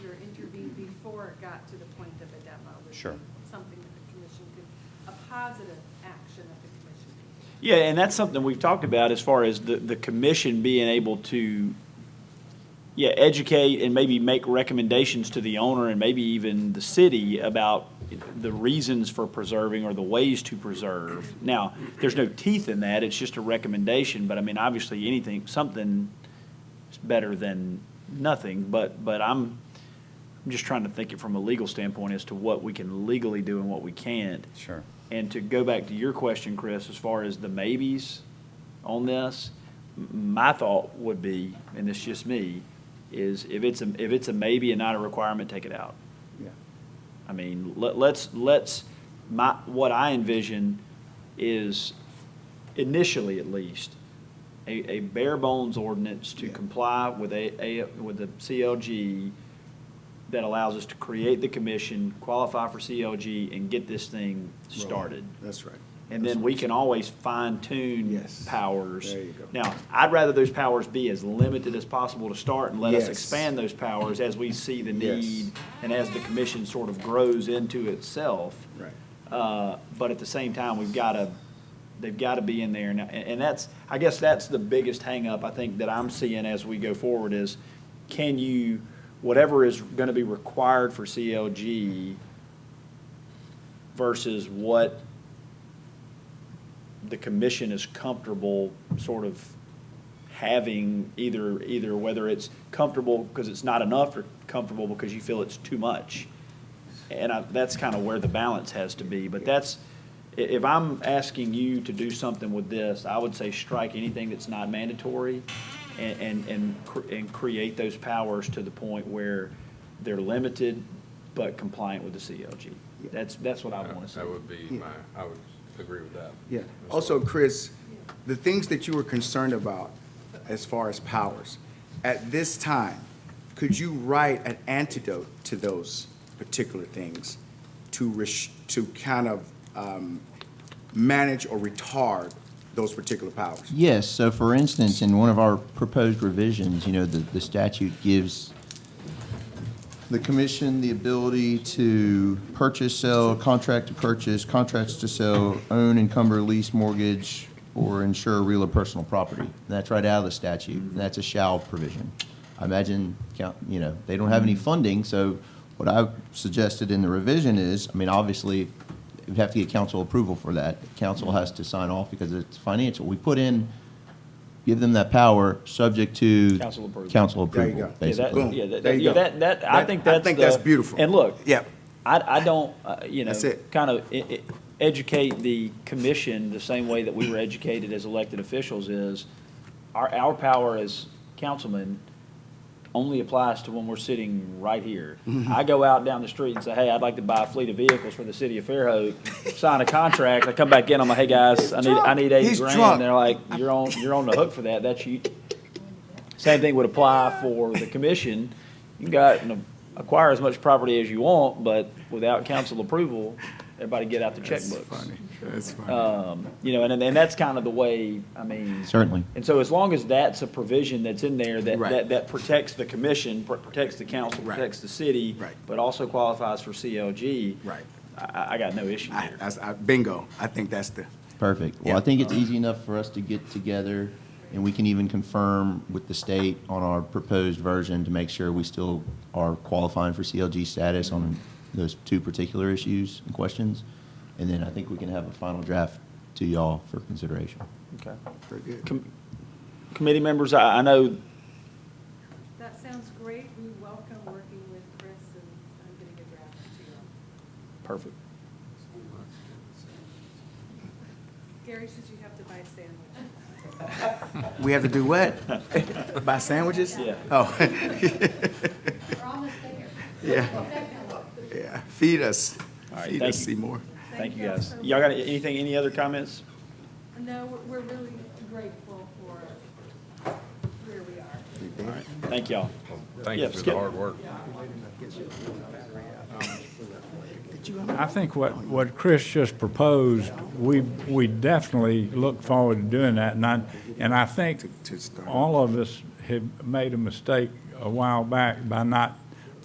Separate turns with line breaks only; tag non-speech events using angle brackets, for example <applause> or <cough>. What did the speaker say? before it got to the point of a demo. would be
Sure.
Something that the commission could, a positive action of the commission.
Yeah, and that's something we've talked about as far as the, the commission being able to, yeah, educate and maybe make recommendations to the owner and maybe even the city about the reasons for preserving or the ways to preserve. Now, there's no teeth in that, it's just a recommendation, but I mean, obviously, anything, something is better than nothing, but, but I'm, I'm just trying to think it from a legal standpoint as to what we can legally do and what we can't.
Sure.
And to go back to your question, Chris, as far as the maybes on this, m- my thought would be, and it's just me, is if it's a, if it's a maybe and not a requirement, take it out.
Yeah.
I mean, let, let's, let's, my, what I envision is initially at least, a, a bare bones ordinance to
Yeah.
comply with a, a, with the CLG that allows us to create the commission, qualify for CLG, and get this thing started.
That's right.
And then we can always fine tune
Yes.
powers.
There you go.
Now, I'd rather those powers be as limited as possible to start and let us
Yes.
expand those powers as we see the
Yes.
need and as the commission sort of grows into itself.
Right.
Uh, But at the same time, we've got to, they've got to be in there. And, and that's, I guess that's the biggest hangup I think that I'm seeing as we go forward is can you, whatever is going to be required for CLG versus what the commission is comfortable sort of having either, either whether it's comfortable because it's not enough or comfortable because you feel it's too much. And I, that's kind of where the balance has to be, but that's, i- if I'm asking you to do something with this, I would say strike anything that's not mandatory and, and, and, cr- and create those powers to the point where they're limited but compliant with the CLG. That's, that's what I want to see.
That would be
Yeah.
my, I would agree with that.
Yeah.
as well.
Also, Chris, the things that you were concerned about as far as powers, at this time, could you write an antidote to those particular things to res, to kind of, um, manage or retard those particular powers?
Yes, so for instance, in one of our proposed revisions, you know, the, the statute gives the commission the ability to purchase, sell, contract to purchase, contracts to sell, own, encumber, lease, mortgage, or insure real or personal property. That's right out of the statute. That's a shall provision. I imagine, count- you know, they don't have any funding, so what I suggested in the revision is, I mean, obviously, we'd have to get council approval for that. Council has to sign off because it's financial. We put in, give them that power, subject to.
Council approval.
Council
There you
approval,
go.
Yeah,
basically.
that-
Boom.
Yeah, that-
There you
yeah,
go.
that, that, I
That-
think
I
that's
think
the-
that's beautiful.
And look.
Yep.
I, I don't, uh, you know.
That's it.
Kind of e- e- educate the commission the same way that we were educated as elected officials is our, our power as councilmen only applies to when we're sitting right here.
Mm-hmm.
I go out down the street and say, hey, I'd like to buy a fleet of vehicles for the city of Fairhope, sign a contract, I come back in, I'm like, hey, guys, I need, I need eighty
He's
grand.
drunk.
They're like, you're on, you're on the hook for that, that's you, same thing would apply for the commission. You can go out and acquire as much property as you want, but without council approval, everybody get out the checkbooks.
That's funny.
Um, You know, and, and that's kind of the way, I mean.
Certainly.
And so as long as that's a provision that's in there that,
Right.
that, that protects the commission, pr- protects the council,
Right.
protects the city.
Right.
But also qualifies for CLG.
Right.
I- I, I got no issue
I,
there.
that's, I, bingo. I think that's the,
Perfect. Well, I
Yeah.
think it's easy enough for us to get together, and we can even confirm with the state on our proposed version to make sure we still are qualifying for CLG status on those two particular issues and questions. And then I think we can have a final draft to y'all for consideration.
Okay.
very good.
Com- Committee members, I, I know
That sounds great. We welcome working with Chris and I'm getting a draft to you.
Perfect.
Gary says you have to buy a sandwich.
<laughs> We have to do
<laughs>
what? Buy sandwiches?
Yeah.
Oh. <laughs>
We're almost there.
Yeah. Yeah. Feed us.
All right,
Feed
thank
us,
you.
Seymour.
Thank you, guys. Y'all got anything, any other comments?
No, we're- we're really grateful for where we are.
Thank y'all.
Thank
Yeah,
you for
Skip.
the hard work.
I think what, what Chris just proposed, we, we definitely look forward to doing that. And I, and I think
To- to start.
all of us have made a mistake a while back by not